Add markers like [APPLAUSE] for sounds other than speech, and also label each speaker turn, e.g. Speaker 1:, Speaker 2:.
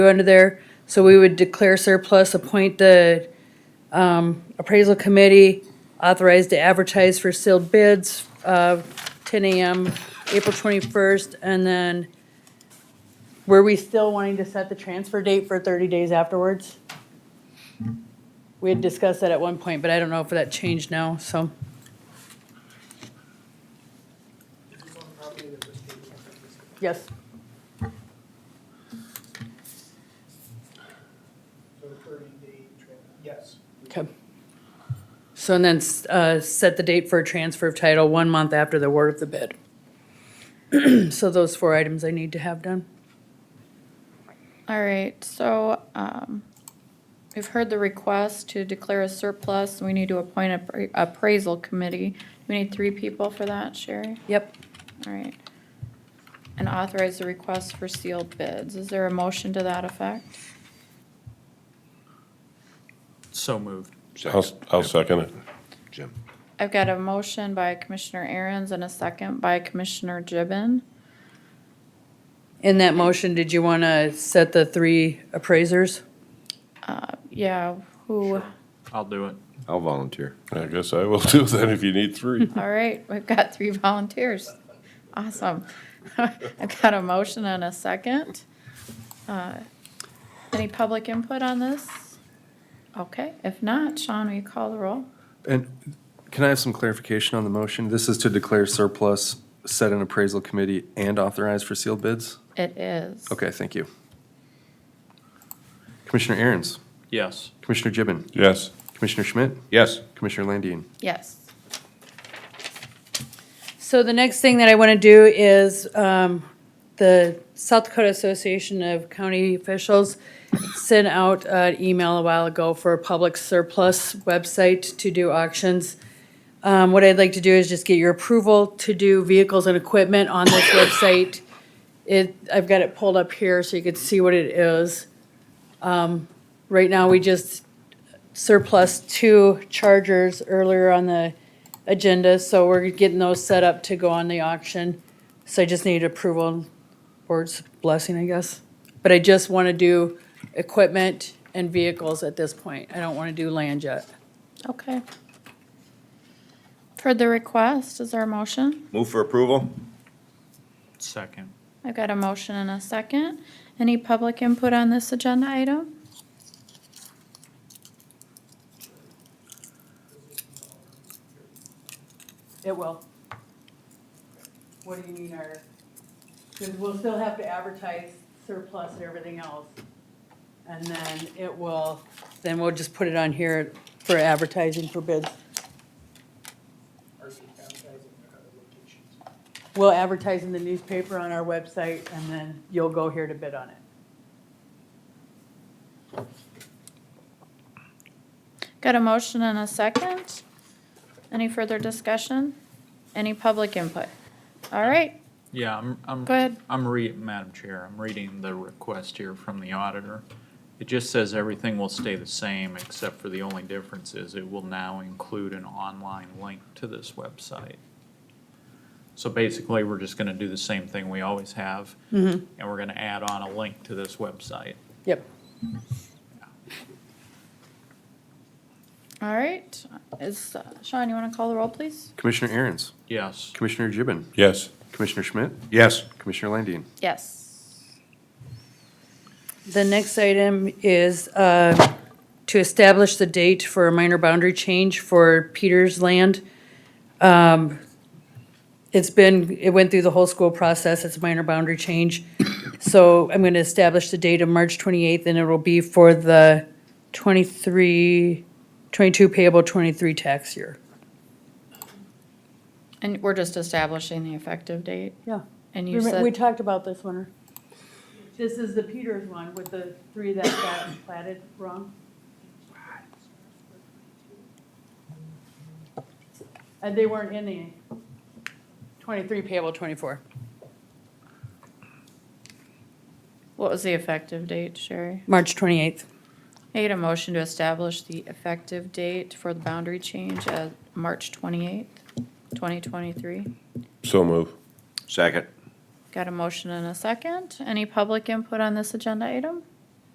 Speaker 1: go under there. So we would declare surplus, appoint the um, appraisal committee, authorize to advertise for sealed bids, uh, 10 AM, April 21st, and then were we still wanting to set the transfer date for 30 days afterwards? We had discussed that at one point, but I don't know if that changed now, so. Yes.
Speaker 2: So thirty-day training, yes.
Speaker 1: Okay. So and then, s- uh, set the date for a transfer of title one month after the award of the bid. [CLEARS THROAT] So those four items I need to have done.
Speaker 3: All right, so, um, we've heard the request to declare a surplus, we need to appoint a pra- appraisal committee. We need three people for that, Sherry,
Speaker 1: Yep.
Speaker 3: all right. And authorize the request for sealed bids, is there a motion to that effect?
Speaker 4: So moved.
Speaker 5: I'll, I'll second it.
Speaker 6: Jim.
Speaker 3: I've got a motion by Commissioner Aaron's and a second by Commissioner Gibbon.
Speaker 1: In that motion, did you want to set the three appraisers?
Speaker 3: Uh, yeah, who,
Speaker 4: I'll do it.
Speaker 6: I'll volunteer.
Speaker 5: I guess I will [LAUGHS] do that if you need three.
Speaker 3: all right, we've got three volunteers, awesome. [LAUGHS] I've got a motion and a second. Uh, Any public input on this? Okay, if not, Sean, will you call the roll?
Speaker 7: And can I have some clarification on the motion? This is to declare surplus, set an appraisal committee, and authorize for sealed bids?
Speaker 3: It is.
Speaker 7: Okay, thank you. Commissioner Aaron's,
Speaker 4: Yes.
Speaker 7: Commissioner Gibbon,
Speaker 5: Yes.
Speaker 7: Commissioner Schmidt,
Speaker 6: Yes.
Speaker 7: Commissioner Landine.
Speaker 3: Yes,
Speaker 1: So the next thing that I want to do is um, the South Dakota Association of County Officials sent out an email a while ago for a public surplus website to do auctions. Um, What I'd like to do is just get your approval to do vehicles and equipment on this website. It, I've got it pulled up here so you can see what it is. Um, Right now, we just surplus two chargers earlier on the agenda, so we're getting those set up to go on the auction. So I just need approval, board's blessing, I guess. But I just want to do equipment and vehicles at this point. I don't want to do land yet.
Speaker 3: okay. For the request, is there a motion?
Speaker 6: Move for approval?
Speaker 4: Second.
Speaker 3: I've got a motion and a second. Any public input on this agenda item?
Speaker 1: It will. What do you mean our, because we'll still have to advertise surplus and everything else. And then it will, then we'll just put it on here for advertising for bids.
Speaker 2: Are you advertising at other locations?
Speaker 1: We'll advertise in the newspaper on our website and then you'll go here to bid on it.
Speaker 3: Got a motion and a second? Any further discussion? Any public input? All right,
Speaker 4: Yeah, I'm, I'm,
Speaker 3: go ahead.
Speaker 4: I'm re, Madam Chair, I'm reading the request here from the auditor. It just says everything will stay the same, except for the only difference is it will now include an online link to this website. So basically, we're just gonna do the same thing we always have,
Speaker 3: Mm-hmm.
Speaker 4: and we're gonna add on a link to this website.
Speaker 1: Yep.
Speaker 3: All right, is, uh, Sean, you wanna call the roll, please?
Speaker 7: Commissioner Aaron's,
Speaker 4: Yes,
Speaker 7: Commissioner Gibbon,
Speaker 5: Yes.
Speaker 7: Commissioner Schmidt,
Speaker 6: Yes.
Speaker 7: Commissioner Landine.
Speaker 3: Yes.
Speaker 1: The next item is uh, to establish the date for a minor boundary change for Peters Land. Um, It's been, it went through the whole school process, it's a minor boundary change. [COUGHS] So I'm going to establish the date of March 28th, and it will be for the 23, 22 payable 23 tax year.
Speaker 3: And we're just establishing the effective date,
Speaker 1: Yeah.
Speaker 3: and you said,
Speaker 1: We talked about this one. This is the Peters one with the three that got platted wrong. And Uh, they weren't in the twenty-three payable twenty-four.
Speaker 3: what was the effective date, Sherry?
Speaker 1: March twenty-eighth.
Speaker 3: I get a motion to establish the effective date for the boundary change at March twenty-eighth, twenty twenty-three.
Speaker 5: So move.
Speaker 6: Second?
Speaker 3: Got a motion and a second. Any public input on this agenda item?